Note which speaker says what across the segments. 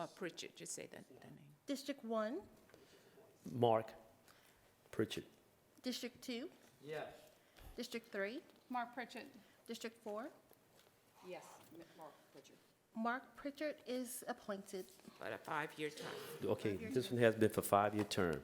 Speaker 1: Or Pritchett, just say that, the name.
Speaker 2: District one,
Speaker 3: Mark Pritchett.
Speaker 2: district two,
Speaker 4: Yes.
Speaker 2: district three,
Speaker 5: Mark Pritchett.
Speaker 2: district four.
Speaker 5: Yes, Mark Pritchett.
Speaker 2: Mark Pritchard is appointed.
Speaker 1: for a five-year term.
Speaker 3: Okay, this one has been for five-year term.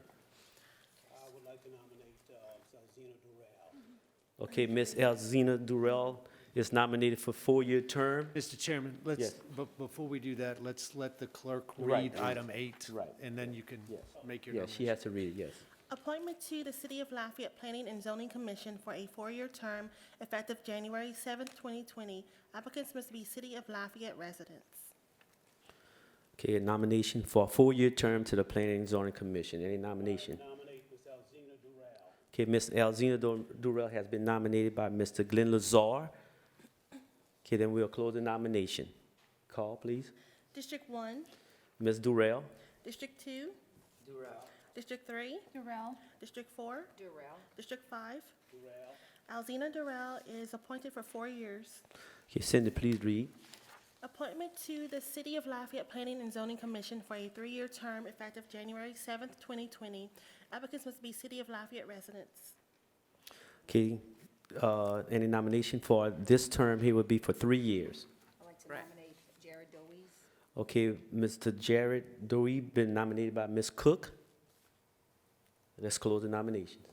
Speaker 6: I would like to nominate uh, Zazina Durrell.
Speaker 3: Mm-hmm. Okay, Ms. Elzina Durrell is nominated for four-year term.
Speaker 4: Mr. Chairman,
Speaker 3: Yes.
Speaker 4: let's, but before we do that, let's let the clerk
Speaker 3: Right,
Speaker 4: read
Speaker 3: please.
Speaker 4: item eight.
Speaker 3: Right.
Speaker 4: And then you can
Speaker 3: Yes.
Speaker 4: make your
Speaker 3: Yeah, she
Speaker 4: nomination.
Speaker 3: has to read it, yes.
Speaker 2: Appointment to the City of Lafayette Planning and Zoning Commission for a four-year term effective January seventh, twenty twenty. Applicants must be City of Lafayette residents.
Speaker 3: Okay, a nomination for a four-year term to the Planning and Zoning Commission. Any nomination?
Speaker 6: Nominate Ms. Zazina Durrell.
Speaker 3: Okay, Ms. Elzina Dur- Durrell has been nominated by Mr. Glenn Lazar. Okay, then we'll close the nomination. Call, please.
Speaker 2: District one,
Speaker 3: Ms. Durrell?
Speaker 2: district two. Durrell. District three,
Speaker 5: Durrell.
Speaker 2: district four,
Speaker 5: Durrell.
Speaker 2: district five. Durrell. Alzina Durrell is appointed for four years.
Speaker 3: Okay, Cindy, please read.
Speaker 2: Appointment to the City of Lafayette Planning and Zoning Commission for a three-year term effective January seventh, twenty twenty. Applicants must be City of Lafayette residents.
Speaker 3: Okay, uh, any nomination for this term here would be for three years.
Speaker 7: I'd like to
Speaker 1: Right.
Speaker 7: nominate Jared Deweese.
Speaker 3: Okay, Mr. Jared Dewey been nominated by Ms. Cook. Let's close the nominations.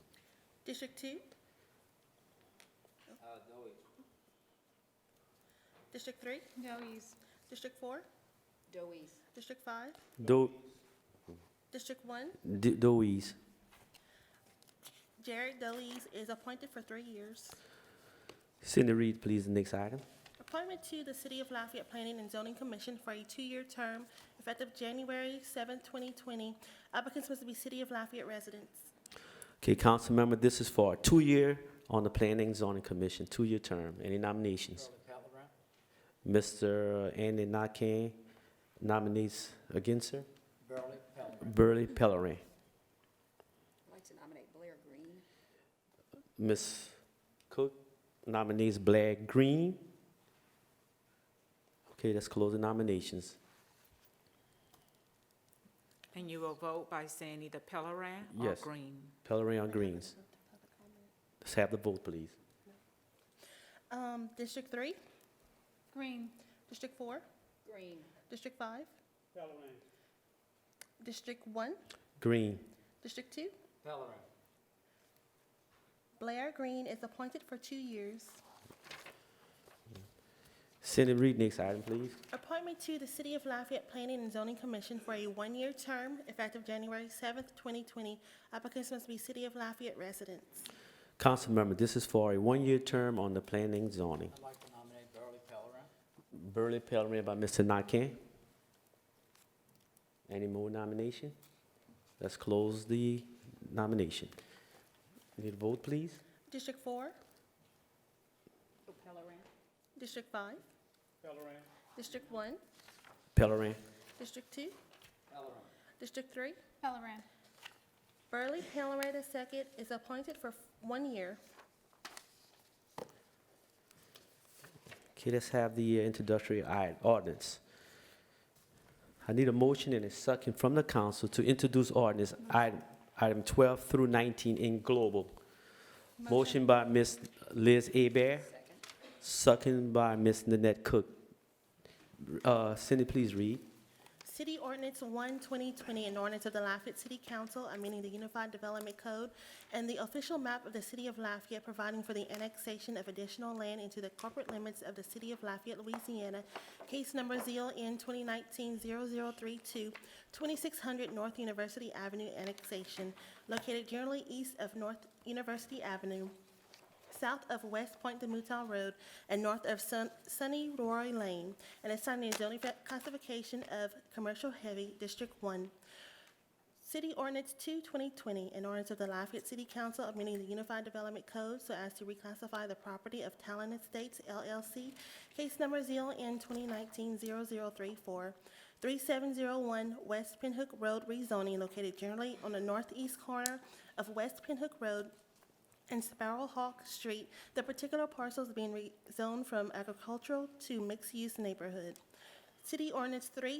Speaker 2: District two? District three,
Speaker 5: Doe's.
Speaker 2: district four,
Speaker 7: Deweese.
Speaker 2: district five,
Speaker 3: Do,
Speaker 2: district one.
Speaker 3: D- Dewey's.
Speaker 2: Jared Delis is appointed for three years.
Speaker 3: Cindy, read please the next item.
Speaker 2: Appointment to the City of Lafayette Planning and Zoning Commission for a two-year term effective January seventh, twenty twenty. Applicants must be City of Lafayette residents.
Speaker 3: Okay, council member, this is for a two-year on the Planning and Zoning Commission, two-year term. Any nominations? Mr. Andy Nakane nominates against her? Burley Pellerin.
Speaker 7: I'd like to nominate Blair Green.
Speaker 3: Ms. Cook nominates Blair Green. Okay, let's close the nominations.
Speaker 1: And you will vote by saying either Pellerin or
Speaker 3: Yes.
Speaker 1: Green.
Speaker 3: Pellerin on Greens. Let's have the vote, please.
Speaker 2: Um, District three,
Speaker 5: Green.
Speaker 2: district four,
Speaker 7: Green.
Speaker 2: district five,
Speaker 6: Halloran.
Speaker 2: district one,
Speaker 3: Green.
Speaker 2: district two. Blair Green is appointed for two years.
Speaker 3: Cindy, read next item, please.
Speaker 2: Appointment to the City of Lafayette Planning and Zoning Commission for a one-year term effective January seventh, twenty twenty. Applicants must be City of Lafayette residents.
Speaker 3: Council member, this is for a one-year term on the planning and zoning.
Speaker 8: I'd like to nominate Burley Pellerin.
Speaker 3: Burley Pellerin by Mr. Nakane. Any more nomination? Let's close the nomination. Need a vote, please?
Speaker 2: District four,
Speaker 7: Oh, Pellerin.
Speaker 2: district five,
Speaker 6: Halloran.
Speaker 2: district one,
Speaker 3: Pellerin.
Speaker 2: district two,
Speaker 8: Pellerin.
Speaker 2: district three.
Speaker 5: Halloran.
Speaker 2: Burley Pellerin II is appointed for f- one year.
Speaker 3: Okay, let's have the uh, introductory i- ordinance. I need a motion and a second from the council to introduce ordinance item, item 12 through 19 in global. Motion by Ms. Liz Abear,
Speaker 7: Second.
Speaker 3: second by Ms. Nanette Cook. Uh, Cindy, please read.
Speaker 2: City Ordinance 1, 2020, an ordinance of the Lafayette City Council, amending the Unified Development Code and the official map of the City of Lafayette, providing for the annexation of additional land into the corporate limits of the City of Lafayette, Louisiana, case number ZLN 2019-0032, 2600 North University Avenue annexation, located generally east of North University Avenue, south of West Point de Mouton Road and north of Sun- Sunny Roy Lane, and assigning a zoning fa- classification of commercial heavy District One. City Ordinance 2, 2020, an ordinance of the Lafayette City Council amending the Unified Development Code so as to reclassify the property of Talon Estates LLC, case number ZLN 2019-0034, 3701 West Pinhook Road rezoning located generally on the northeast corner of West Pinhook Road and Sparrow Hawk Street, the particular parcels being rezoned from agricultural to mixed-use neighborhood. City Ordinance 3,